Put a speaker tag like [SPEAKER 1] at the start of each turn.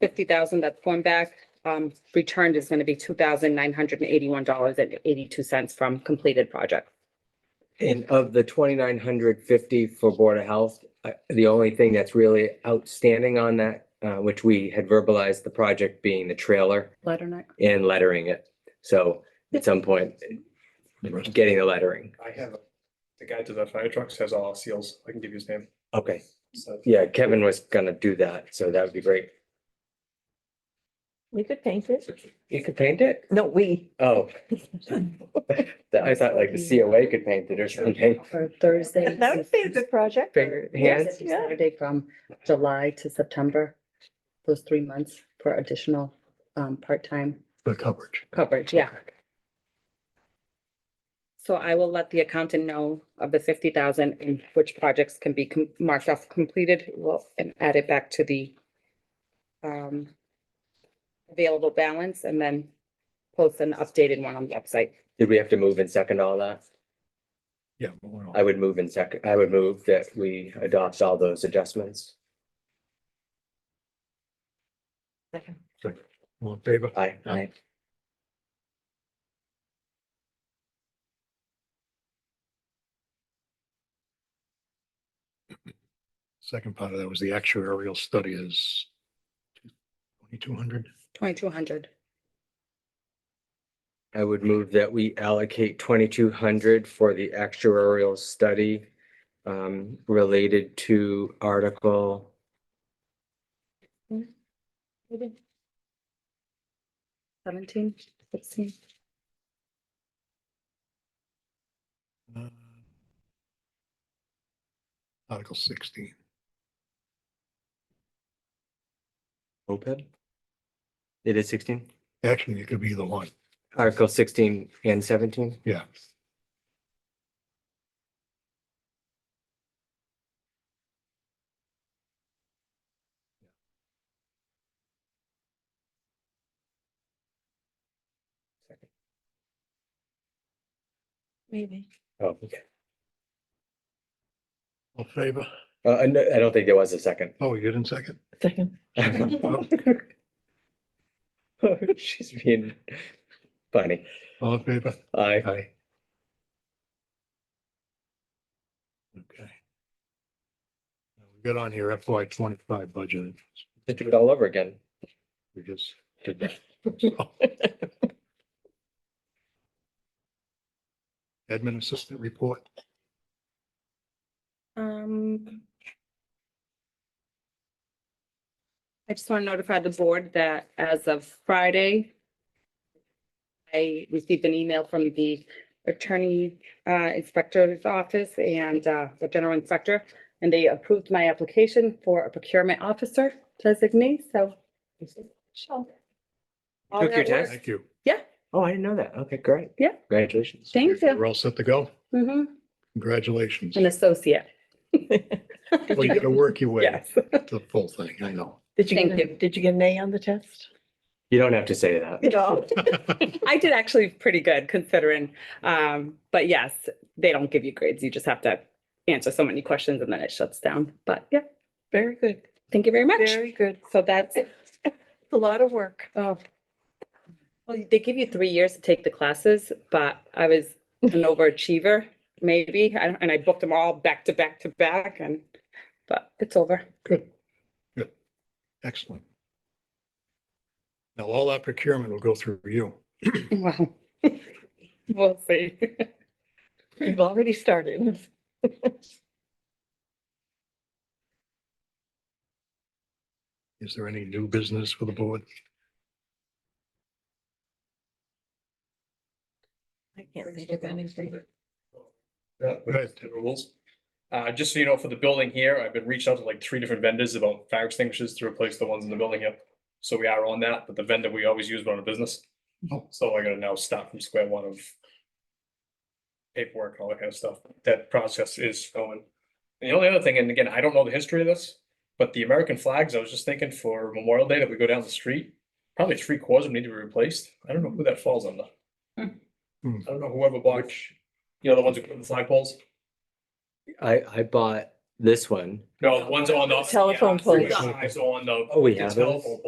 [SPEAKER 1] fifty thousand that's going back. Um, returned is gonna be two thousand nine hundred and eighty-one dollars and eighty-two cents from completed project.
[SPEAKER 2] And of the twenty-nine hundred fifty for Board of Health, uh, the only thing that's really outstanding on that, uh, which we had verbalized the project being the trailer
[SPEAKER 1] Letter night.
[SPEAKER 2] and lettering it. So at some point, getting the lettering.
[SPEAKER 3] I have, the guy to the fire trucks has all our seals. I can give you his name.
[SPEAKER 2] Okay,
[SPEAKER 3] So
[SPEAKER 2] yeah, Kevin was gonna do that, so that would be great.
[SPEAKER 4] We could paint it.
[SPEAKER 2] You could paint it?
[SPEAKER 4] No, we,
[SPEAKER 2] Oh. I thought like the COA could paint it or something.
[SPEAKER 1] For Thursday.
[SPEAKER 4] that would be a good project.
[SPEAKER 2] Finger, hands,
[SPEAKER 4] yeah.
[SPEAKER 1] Saturday from July to September, those three months for additional, um, part-time
[SPEAKER 5] the coverage.
[SPEAKER 1] coverage, yeah. So I will let the accountant know of the fifty thousand and which projects can be com- marked off completed, well, and add it back to the um available balance and then post an updated one on the website.
[SPEAKER 2] did we have to move and second all that?
[SPEAKER 5] Yeah. but we're all-
[SPEAKER 2] I would move in second, I would move that we adopt all those adjustments.
[SPEAKER 5] All in favor?
[SPEAKER 2] Aye.
[SPEAKER 5] Aye. Second part of that was the actuarial study is twenty-two hundred.
[SPEAKER 1] Twenty-two hundred.
[SPEAKER 2] I would move that we allocate twenty-two hundred for the actuarial study um, related to article,
[SPEAKER 1] Mm-hmm. Seventeen, sixteen,
[SPEAKER 5] uh, Article sixteen.
[SPEAKER 2] OPEB? It is sixteen?
[SPEAKER 5] Actually, it could be the one.
[SPEAKER 2] Article sixteen and seventeen?
[SPEAKER 5] Yeah.
[SPEAKER 4] Maybe.
[SPEAKER 2] Oh, okay.
[SPEAKER 5] All in favor?
[SPEAKER 2] Uh, I no- I don't think there was a second.
[SPEAKER 5] Oh, you didn't second?
[SPEAKER 4] Second.
[SPEAKER 2] She's being funny.
[SPEAKER 5] All in favor?
[SPEAKER 2] Aye.
[SPEAKER 5] Aye. Okay. Now We got on here FY twenty-five budget.
[SPEAKER 2] Just do it all over again.
[SPEAKER 5] We just
[SPEAKER 2] Did that.
[SPEAKER 5] admin assistant report.
[SPEAKER 1] Um. I just want to notify the board that as of Friday, I received an email from the attorney uh, inspector's office and uh, the general inspector, and they approved my application for a procurement officer designee, so. All
[SPEAKER 2] Took your
[SPEAKER 1] that work-
[SPEAKER 2] test?
[SPEAKER 5] Thank you.
[SPEAKER 2] Oh, I didn't know that. Okay, great.
[SPEAKER 1] Yeah.
[SPEAKER 2] Congratulations.
[SPEAKER 1] Thank
[SPEAKER 5] You're-
[SPEAKER 1] you.
[SPEAKER 5] We're all set to go.
[SPEAKER 1] Mhm,
[SPEAKER 5] Congratulations.
[SPEAKER 1] An associate.
[SPEAKER 5] Well, you gotta work your way
[SPEAKER 1] Yes.
[SPEAKER 5] to the full thing, I know.
[SPEAKER 4] Did you,
[SPEAKER 1] Thank
[SPEAKER 4] get a- did you get an A on the test?
[SPEAKER 2] You don't have to say that.
[SPEAKER 4] No.
[SPEAKER 1] I did actually pretty good considering, um, but yes, they don't give you grades. You just have to answer so many questions and then it shuts down. But yeah,
[SPEAKER 4] Very good,
[SPEAKER 1] thank you very much.
[SPEAKER 4] very good.
[SPEAKER 1] So that's,
[SPEAKER 4] A lot of work.
[SPEAKER 1] oh. Well, they give you three years to take the classes, but I was an overachiever, maybe, I don't- and I booked them all back to back to back and, but it's over.
[SPEAKER 5] Good, good, excellent. Now, all that procurement will go through you.
[SPEAKER 1] Wow. We'll see.
[SPEAKER 4] You've already started.
[SPEAKER 5] Is there any new business for the board?
[SPEAKER 4] I can't think of anything.
[SPEAKER 3] Yeah,
[SPEAKER 5] Go ahead.
[SPEAKER 3] the rules. Uh, just so you know, for the building here, I've been reached out to like three different vendors about fire extinguishers to replace the ones in the building here. So we are on that, but the vendor we always use run a business.
[SPEAKER 5] Oh.
[SPEAKER 3] So I gotta now start from square one of paperwork, all that kind of stuff. That process is going. And the only other thing, and again, I don't know the history of this, but the American flags, I was just thinking for Memorial Day that we go down the street, probably three quarters of them need to be replaced. I don't know who that falls under. I
[SPEAKER 5] Hmm.
[SPEAKER 3] don't know whoever bought, you know, the ones who put the flagpoles.
[SPEAKER 2] I, I bought this one.
[SPEAKER 3] No, the ones on the.
[SPEAKER 4] Telephone
[SPEAKER 3] yeah, it's
[SPEAKER 4] poles.
[SPEAKER 3] on the-
[SPEAKER 2] Oh, we
[SPEAKER 3] it's
[SPEAKER 2] have
[SPEAKER 3] telephone
[SPEAKER 2] those?